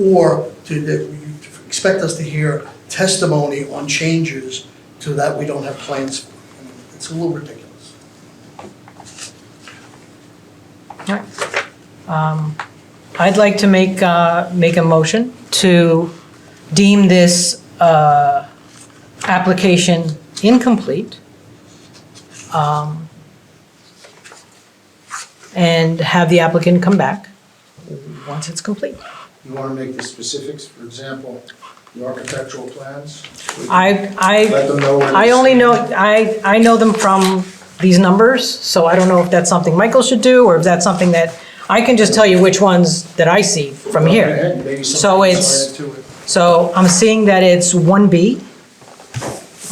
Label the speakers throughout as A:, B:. A: or to, that you expect us to hear testimony on changes to that we don't have plans. for. I mean, It's a little ridiculous.
B: Um, I'd like to make, uh, make a motion to deem this uh, application incomplete um, and have the applicant come back once it's complete.
C: You want to make the specifics, for example, the architectural plans?
B: I,
C: Let
B: I,
C: them know. when
B: I
C: it's-
B: only know, I, I know them from these numbers, so I don't know if that's something Michael should do or if that's something that, I can just tell you which ones that I see from
C: Go
B: here.
C: ahead, Maybe
B: So
C: something
B: it's-
C: else add to it.
B: So I'm seeing that it's 1B.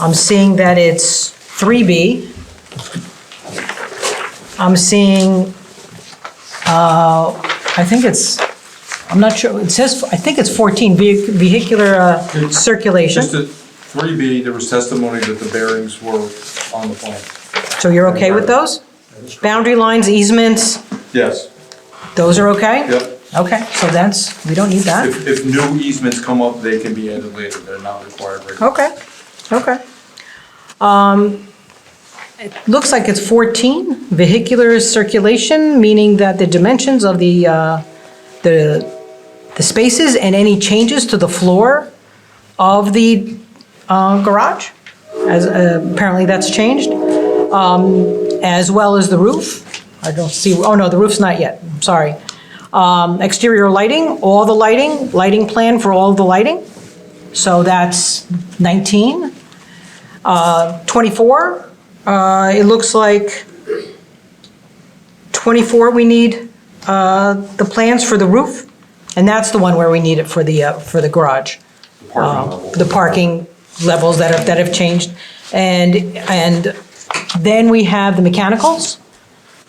B: I'm seeing that it's 3B. I'm seeing, uh, I think it's, I'm not sure, it says, I think it's 14, vehi- vehicular uh, circulation.
D: Just at three B, there was testimony that the bearings were on the plan.
B: So you're okay with those? Boundary lines, easements,
D: Yes,
B: those are okay?
D: yep.
B: Okay, so that's, we don't need that?
D: If, if new easements come up, they can be added later, they're not required right now.
B: Okay, okay. Um, It looks like it's 14, vehicular circulation, meaning that the dimensions of the, uh, the, the spaces and any changes to the floor of the uh, garage, as uh, apparently that's changed, um, as well as the roof. I don't see, oh no, the roof's not yet, I'm sorry. Um, Exterior lighting, all the lighting, lighting plan for all the lighting. So that's 19. Uh, 24, uh, it looks like 24, we need uh, the plans for the roof, and that's the one where we need it for the, uh, for the garage. Um,
D: The parking level.
B: The parking levels that have, that have changed. And, and then we have the mechanicals.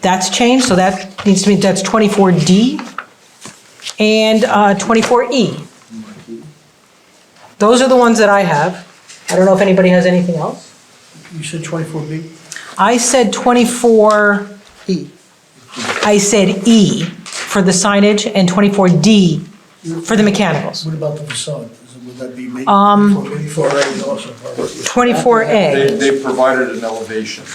B: That's changed, so that needs to be, that's 24D and uh, 24E. Those are the ones that I have. I don't know if anybody has anything else.
A: You said twenty-four B?
B: I said 24,
A: E.
B: I said E for the signage and 24D for the mechanicals.
A: What about the facade? Is it- Would that be made? Um. Twenty-four A is also part of it.
B: 24A,
D: They, they provided an elevation,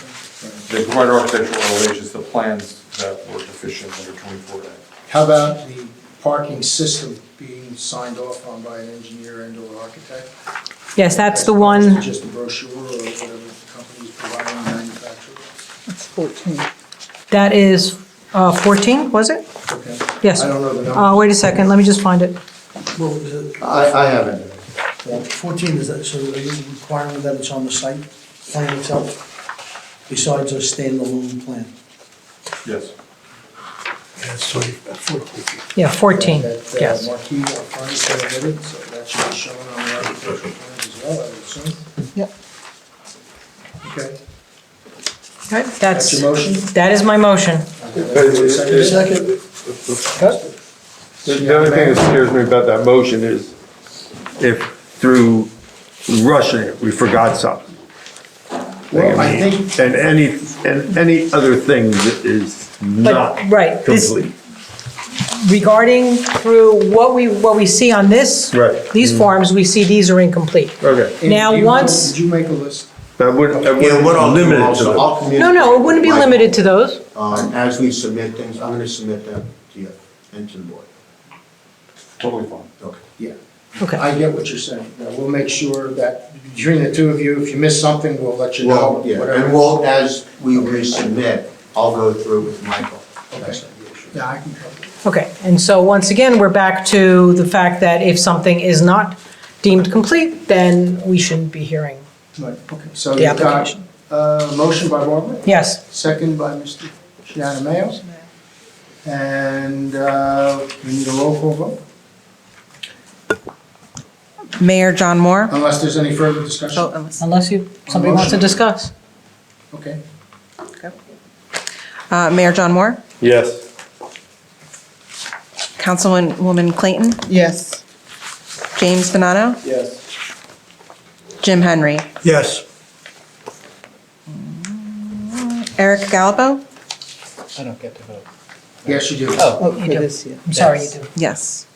D: they provided architectural elevations, the plans that were deficient under twenty-four A.
C: How about the parking system being signed off on by an engineer and or architect?
B: yes, that's the
C: As
B: one,
C: opposed to Just a brochure or whatever the company's providing manufacturer?
B: that is uh, 14, was it?
C: Okay.
B: Yes.
C: I don't know the
B: Uh,
C: number.
B: Wait a second, let me just find it.
A: Well, is it-
C: I, I haven't.
A: fourteen, is that, so are you requiring that it's on the site plan itself? Besides a standalone plan?
D: Yes.
B: Yeah, 14,
C: That, uh,
B: yes.
C: Marquee up front is submitted, so that should be shown on the architectural plans as well, I would assume.
B: Yep.
C: Okay.
B: Okay,
C: That's
B: That's,
C: your motion?
B: that is my motion.
C: Second?
A: Second,
E: The the only thing that scares me about that motion is if through rushing it, we forgot something.
C: Well, I think,
E: And any, and any other thing that is not
B: right, this-
E: complete.
B: Regarding through what we, what we see on this,
E: Right.
B: these forms, we see these are incomplete.
C: Oh,
E: Okay.
B: Now,
C: you-
B: once-
C: Did you make a list?
E: That wouldn't, that
F: Yeah, what I'll
E: wouldn't
F: do
E: limit it to
F: also,
E: that.
F: I'll communicate.
B: No, no, it wouldn't be
F: with Michael.
B: limited to those.
F: Um, As we submit things, I'm going to submit that to you and to the board.
D: Totally fine.
F: Okay.
C: Yeah.
B: Okay,
C: I get what you're saying. Now, We'll make sure that between the two of you, if you miss something, we'll let you know.
F: Well, yeah,
C: whatever.
F: and we'll, as we resubmit, I'll go through with Michael. That's it.
C: Yeah, I can cover it.
B: okay. And so once again, we're back to the fact that if something is not deemed complete, then we shouldn't be hearing.
C: Right, okay. So
B: The
C: you've got
B: application.
C: a motion by Barbara,
B: Yes,
C: second by Mr. Shiana Mayo. And uh, we need a roll call vote,
G: Mayor John Moore.
C: unless there's any further
G: Oh,
C: discussion.
G: unless-
B: unless you, somebody wants to discuss.
C: Okay.
G: uh, Mayor John Moore,
E: Yes.
G: Councilwoman Clayton,
C: Yes.
G: James Donato,
C: Yes.
G: Jim Henry,
A: yes.
G: Eric Galbo,
C: Yes, you do.
B: You do. I'm sorry, you do.
G: yes.